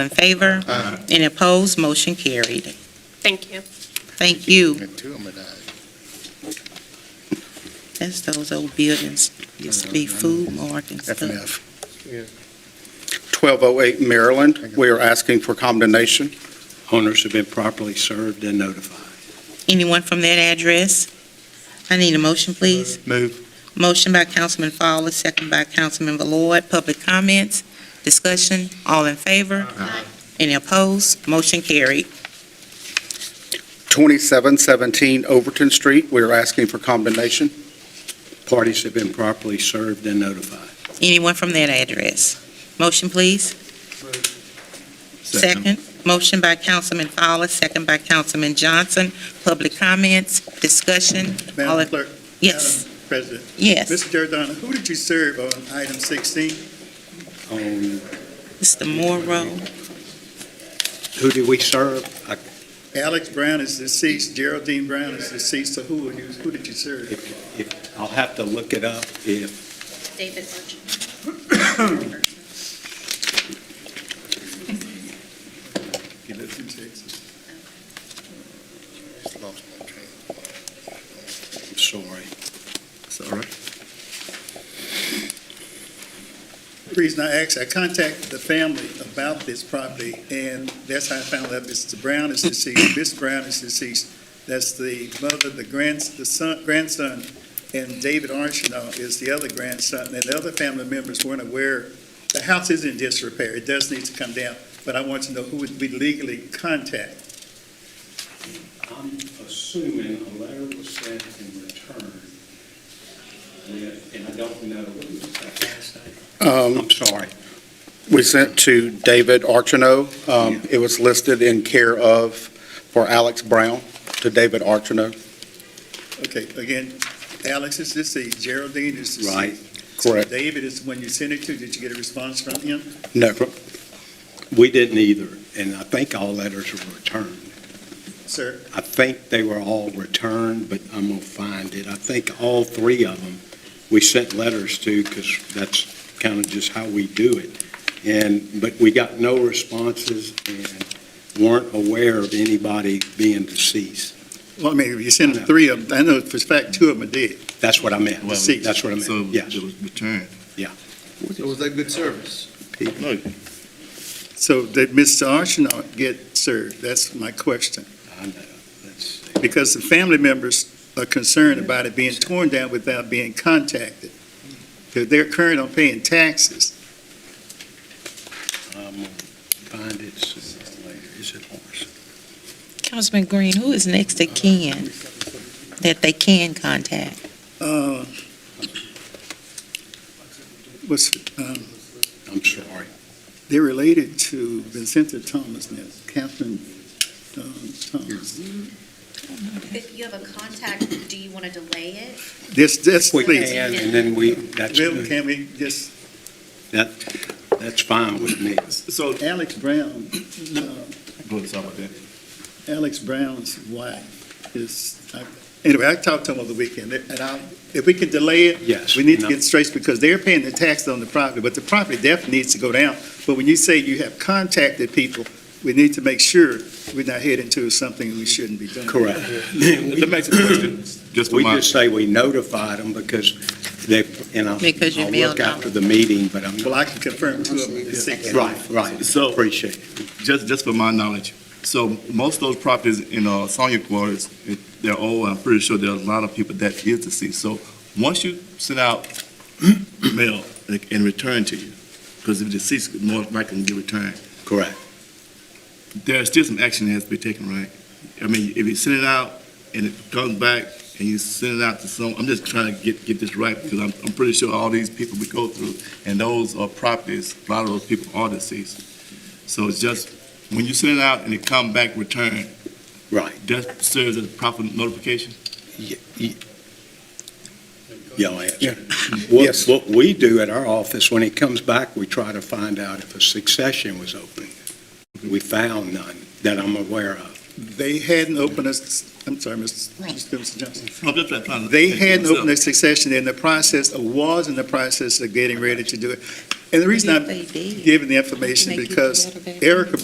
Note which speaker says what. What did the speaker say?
Speaker 1: in favor?
Speaker 2: Aye.
Speaker 1: Any opposed? Motion carried.
Speaker 3: Thank you.
Speaker 1: Thank you.
Speaker 2: And two of them are died.
Speaker 1: That's those old buildings, used to be food mart and
Speaker 2: Uh, F and
Speaker 1: stuff.
Speaker 2: F.
Speaker 4: 1208 Maryland, we are asking for condemnation.
Speaker 5: Owners have been properly served and notified.
Speaker 1: Anyone from that address? I need a motion,
Speaker 2: Uh,
Speaker 1: please.
Speaker 5: Move.
Speaker 1: Motion by Councilman Fowler, second by Councilman Ballard. Public comments, discussion, all in favor?
Speaker 3: Aye.
Speaker 1: Any opposed? Motion carried.
Speaker 4: 2717 Overton Street, we are asking for condemnation.
Speaker 5: Parties have been properly served and notified.
Speaker 1: Anyone from that address? Motion, please. Second. Motion by Councilman Fowler, second by Councilman Johnson. Public comments, discussion, all
Speaker 2: Madam
Speaker 1: in,
Speaker 2: Clerk,
Speaker 1: yes,
Speaker 2: President,
Speaker 1: yes.
Speaker 2: Mr. Giordano, who did you serve on item 16?
Speaker 5: On,
Speaker 1: Mr. Morrow,
Speaker 5: who do we serve? I-
Speaker 2: Alex Brown is deceased, Geraldine Brown is deceased, so who, are you- who did you serve?
Speaker 5: if- if- I'll have to look it up if,
Speaker 3: David Lynch.
Speaker 2: He lives in Texas.
Speaker 5: I'm sorry. Sorry.
Speaker 2: The reason I asked, I contacted the family about this property, and that's how I found out Mr. Brown is deceased, Miss Brown is deceased. That's the mother, the grands, the son, grandson, and David Archino is the other grandson, and the other family members weren't aware. The house is in disrepair, it does need to come down, but I want to know who would we legally contact.
Speaker 5: I'm assuming a letter was sent in return, with- and I don't know who was that last name.
Speaker 4: Um,
Speaker 5: I'm sorry.
Speaker 4: We sent to David Archino. Um, It was listed in care of for Alex Brown to David Archino.
Speaker 2: Okay, again, Alex is deceased, Geraldine is deceased.
Speaker 5: Right.
Speaker 4: Correct.
Speaker 2: David is the one you sent it to, did you get a response from him?
Speaker 4: No.
Speaker 5: We didn't either, and I think all letters were returned.
Speaker 2: Sir,
Speaker 5: I think they were all returned, but I'm going to find it. I think all three of them, we sent letters to because that's kind of just how we do it. And, but we got no responses and weren't aware of anybody being deceased.
Speaker 2: well, I mean, if you sent the three of them, I know for a fact two of them are dead.
Speaker 5: That's what I meant.
Speaker 2: Well,
Speaker 5: That's what I meant, yes.
Speaker 6: returned.
Speaker 5: Yeah.
Speaker 6: So was that good service? Look,
Speaker 2: So did Mr. Archino get served? That's my question.
Speaker 5: I know. That's-
Speaker 2: Because the family members are concerned about it being torn down without being contacted. Because they're current on paying taxes.
Speaker 5: I'm going to find it sooner or later. Is it ours?
Speaker 1: Councilman Green, who is next to kin that they can contact?
Speaker 2: Uh, Was, um,
Speaker 5: I'm sorry.
Speaker 2: they're related to Vincenta Thomas now, Catherine um, Thomas.
Speaker 7: If you have a contact, do you want to delay it?
Speaker 2: This, this,
Speaker 5: We
Speaker 2: please.
Speaker 5: can, and then we, that's,
Speaker 2: Bill, can we just,
Speaker 5: that, that's fine with me.
Speaker 2: so Alex Brown, uh,
Speaker 6: Go to some of that.
Speaker 2: Alex Brown's wife is, I- anyway, I talked to him over the weekend, and I, if we can delay it,
Speaker 5: Yes.
Speaker 2: we need
Speaker 5: No.
Speaker 2: to get straight, because they're paying the taxes on the property, but the property definitely needs to go down. But when you say you have contacted people, we need to make sure we're not heading to something we shouldn't be doing.
Speaker 5: Correct. That makes a question.
Speaker 6: Just for
Speaker 5: We
Speaker 6: my-
Speaker 5: just say we notified them because they, and I'll,
Speaker 1: Because you
Speaker 5: I'll
Speaker 1: mailed
Speaker 5: look
Speaker 1: them.
Speaker 5: after the meeting, but I'm,
Speaker 2: Well, I can confirm two of them is sick.
Speaker 5: right, right.
Speaker 6: So-
Speaker 5: Appreciate it.
Speaker 6: Just, just for my knowledge, so most of those properties in uh, Sonia quarters, it- they're old, I'm pretty sure there are a lot of people that is deceased. So once you send out mail like, and return to you, because if deceased, more likely to get returned,
Speaker 5: Correct.
Speaker 6: there's still some action that has to be taken, right? I mean, if you send it out and it comes back and you send it out to some, I'm just trying to get, get this right because I'm, I'm pretty sure all these people we go through and those are properties, a lot of those people are deceased. So it's just, when you send it out and it come back returned,
Speaker 5: Right.
Speaker 6: that serves as proper notification?
Speaker 5: Y- y- Y'all
Speaker 4: Yeah.
Speaker 5: answer. What,
Speaker 4: Yes.
Speaker 5: what we do at our office, when it comes back, we try to find out if a succession was open. We found none that I'm aware of.
Speaker 2: They hadn't opened us, I'm sorry, Mr. Mr. Johnson.
Speaker 6: I'm just trying
Speaker 2: Uh,
Speaker 6: to-
Speaker 2: They hadn't opened their succession, they're in the process, or was in the process of getting ready to do it. And the reason I'm
Speaker 1: They did.
Speaker 2: giving the information
Speaker 1: Make you
Speaker 2: because
Speaker 1: feel better.
Speaker 2: Erica